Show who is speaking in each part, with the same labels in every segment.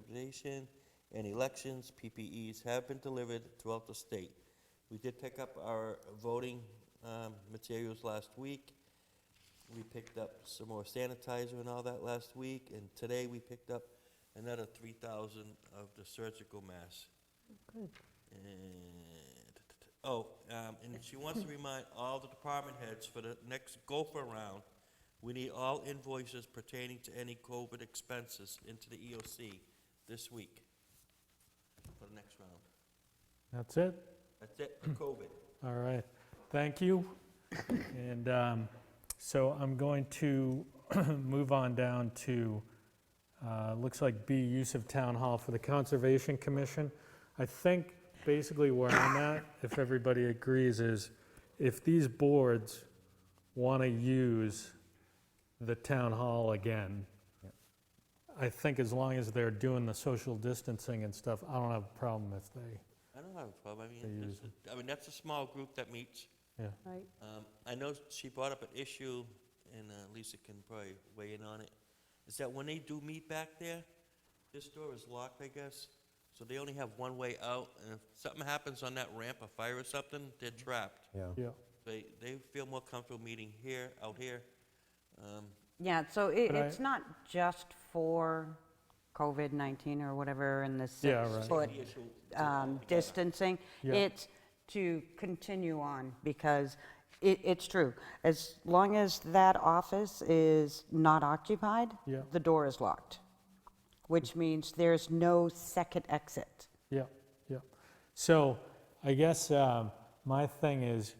Speaker 1: distribution, and elections, PPEs have been delivered throughout the state. We did pick up our voting um, materials last week. We picked up some more sanitizer and all that last week, and today we picked up another 3,000 of the surgical masks.
Speaker 2: Good.
Speaker 1: And, oh, um, and she wants to remind all the department heads for the next gopher round, we need all invoices pertaining to any COVID expenses into the EOC this week for the next round.
Speaker 2: That's it?
Speaker 1: That's it for COVID.
Speaker 2: All right, thank you. And um, so I'm going to move on down to, uh, looks like B, use of town hall for the Conservation Commission. I think basically where I'm at, if everybody agrees, is if these boards want to use the town hall again, I think as long as they're doing the social distancing and stuff, I don't have a problem if they,
Speaker 1: I don't have a problem, I mean,
Speaker 2: They
Speaker 1: it's
Speaker 2: use
Speaker 1: a- I mean, that's a small group that meets.
Speaker 2: yeah.
Speaker 3: Right,
Speaker 1: Um, I know she brought up an issue, and uh, Lisa can probably weigh in on it, is that when they do meet back there, this door is locked, I guess, so they only have one way out, and if something happens on that ramp, a fire or something, they're trapped.
Speaker 4: Yeah,
Speaker 2: Yeah.
Speaker 1: They, they feel more comfortable meeting here, out here. Um,
Speaker 3: yeah, so it,
Speaker 2: But I-
Speaker 3: it's not just for COVID-19 or whatever in the
Speaker 2: Yeah, right.
Speaker 3: six-foot
Speaker 1: the issue-
Speaker 3: um, distancing.
Speaker 2: Yeah.
Speaker 3: It's to continue on, because it, it's true. As long as that office is not occupied,
Speaker 2: Yeah.
Speaker 3: the door is locked, which means there's no second exit.
Speaker 2: Yeah, yeah. So I guess um, my thing is,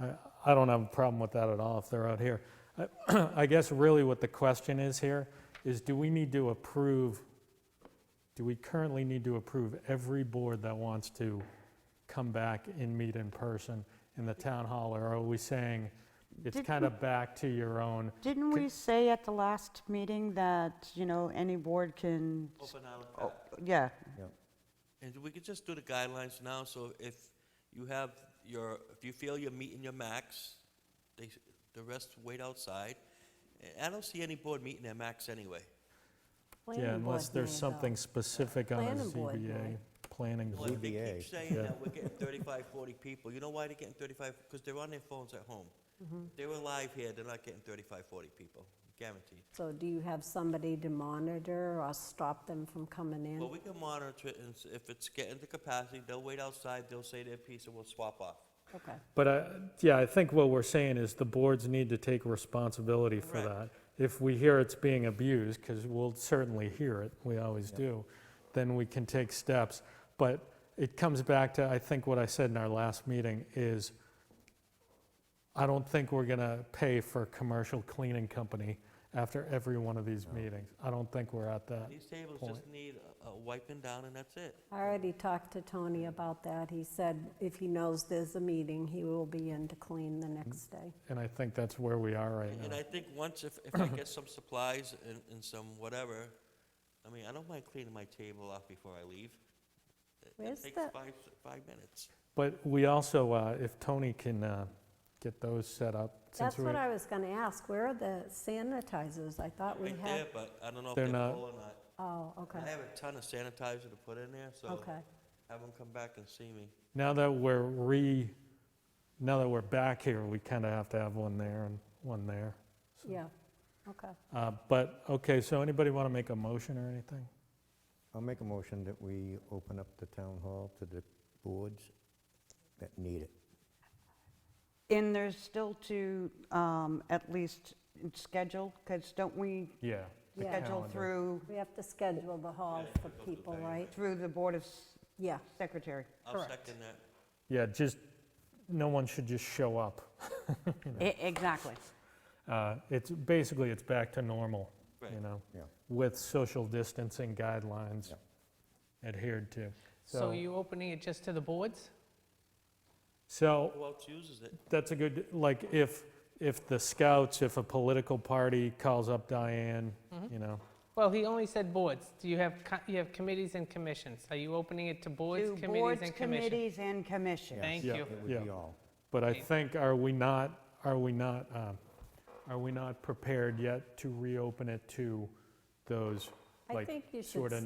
Speaker 2: I, I don't have a problem with that at all if they're out here. I, I guess really what the question is here is do we need to approve, do we currently need to approve every board that wants to come back and meet in person in the town hall? Or are we saying it's
Speaker 3: Did-
Speaker 2: kind of back to your own?
Speaker 3: Didn't we say at the last meeting that, you know, any board can,
Speaker 1: Open out
Speaker 3: oh,
Speaker 1: back.
Speaker 3: yeah,
Speaker 1: And we could just do the guidelines now, so if you have your, if you feel you're meeting your max, they, the rest wait outside. And I don't see any board meeting their max anyway.
Speaker 2: Yeah, unless there's something specific on a
Speaker 5: Planning board
Speaker 2: ZBA,
Speaker 5: might.
Speaker 2: planning
Speaker 1: Well,
Speaker 2: board.
Speaker 1: They keep
Speaker 4: ZBA.
Speaker 1: saying
Speaker 2: Yeah.
Speaker 1: that we're getting 35, 40 people. You know why they're getting 35? Because they're on their phones at home.
Speaker 2: Mm-hmm.
Speaker 1: If They were live here, they're not getting 35, 40 people, guaranteed.
Speaker 2: Mm-hmm.
Speaker 5: So do you have somebody to monitor or stop them from coming
Speaker 1: Well,
Speaker 5: in?
Speaker 1: we can monitor it, and s- if it's getting to capacity, they'll wait outside, they'll say their piece, and we'll swap off.
Speaker 5: Okay.
Speaker 2: But I, yeah, I think what we're saying is the boards need to take responsibility for that.
Speaker 1: Correct.
Speaker 2: If we hear it's being abused, because we'll certainly hear it, we always do, then we can take steps. But it comes back to, I think what I said in our last meeting is, I don't think we're gonna pay for a commercial cleaning company after every one of these meetings. I don't think we're at that.
Speaker 1: These tables
Speaker 2: Point.
Speaker 1: just need a- a wiping down, and that's it.
Speaker 5: I already talked to Tony about that. He said if he knows there's a meeting, he will be in to clean the next day.
Speaker 2: And I think that's where we are right
Speaker 1: And
Speaker 2: now.
Speaker 1: I think once, if, if I get some supplies and, and some whatever, I mean, I don't mind cleaning my table off before I leave. It-
Speaker 5: Where's
Speaker 1: It
Speaker 5: the-
Speaker 1: takes five, s- five minutes.
Speaker 2: But we also, uh, if Tony can uh, get those set up. since
Speaker 5: That's
Speaker 2: we.
Speaker 5: what I was going to ask. Where are the sanitizers? I thought we
Speaker 1: Right there,
Speaker 5: had.
Speaker 1: but I don't know if
Speaker 2: They're
Speaker 1: they're
Speaker 2: not-
Speaker 1: full or not.
Speaker 5: Oh,
Speaker 1: I
Speaker 5: okay,
Speaker 1: have a ton of sanitizer to put in there, so
Speaker 5: okay.
Speaker 1: have them come back and see me.
Speaker 2: Now that we're re, now that we're back here, we kind of have to have one there and one there. so.
Speaker 5: Yeah, okay.
Speaker 2: Uh, But, okay, so anybody want to make a motion or anything?
Speaker 4: I'll make a motion that we open up the town hall to the boards that need it.
Speaker 3: And there's still to um, at least schedule, because don't we
Speaker 2: Yeah. the
Speaker 5: Yeah.
Speaker 3: schedule
Speaker 2: calendar.
Speaker 3: through,
Speaker 5: We have to schedule the hall for people, right?
Speaker 3: through the Board of
Speaker 5: Yeah,
Speaker 3: Secretary?
Speaker 1: I'll
Speaker 5: Correct.
Speaker 1: second that.
Speaker 2: Yeah, just, no one should just show up.
Speaker 3: E- Exactly.
Speaker 2: Uh, It's, basically, it's back to normal, you
Speaker 1: Right.
Speaker 2: know?
Speaker 4: Yeah.
Speaker 2: With social distancing guidelines adhered to.
Speaker 6: So you opening it just to the boards?
Speaker 2: So
Speaker 1: Who else uses it?
Speaker 2: That's a good, like, if, if the scouts, if a political party calls up Diane, you know,
Speaker 6: Well, he only said boards. Do you have, co- you have committees and commissions? Are you opening it to boards,
Speaker 3: To
Speaker 6: committees, and
Speaker 3: Boards,
Speaker 6: commissions?
Speaker 3: committees, and commissions.
Speaker 6: Thank
Speaker 2: Yeah.
Speaker 6: you.
Speaker 4: It would be
Speaker 2: Yeah.
Speaker 4: all.
Speaker 2: but I
Speaker 6: Okay.
Speaker 2: think, are we not, are we not, um, are we not prepared yet to reopen it to those,
Speaker 5: I
Speaker 2: like,
Speaker 5: think you should
Speaker 2: sort of